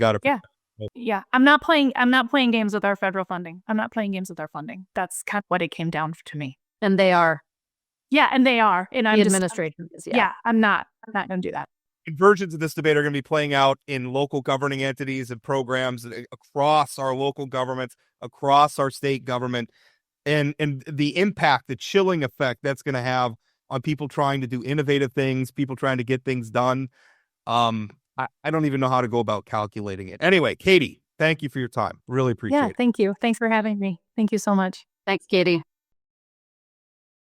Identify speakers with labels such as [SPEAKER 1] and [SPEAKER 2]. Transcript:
[SPEAKER 1] Got it.
[SPEAKER 2] Yeah. Yeah, I'm not playing. I'm not playing games with our federal funding. I'm not playing games with our funding. That's kind of what it came down to me.
[SPEAKER 3] And they are
[SPEAKER 2] Yeah, and they are, and I'm
[SPEAKER 3] the
[SPEAKER 2] just-
[SPEAKER 3] administration. is,
[SPEAKER 2] yeah. I'm not. I'm not going to do that.
[SPEAKER 1] Versions of this debate are going to be playing out in local governing entities and programs a- across our local governments, across our state government, and and the impact, the chilling effect that's going to have on people trying to do innovative things, people trying to get things done. Um, I, I don't even know how to go about calculating it. Anyway, Katie, thank you for your time. Really appreciate
[SPEAKER 2] yeah,
[SPEAKER 1] it.
[SPEAKER 2] thank you. Thanks for having me. Thank you so much.
[SPEAKER 3] Thanks, Katie.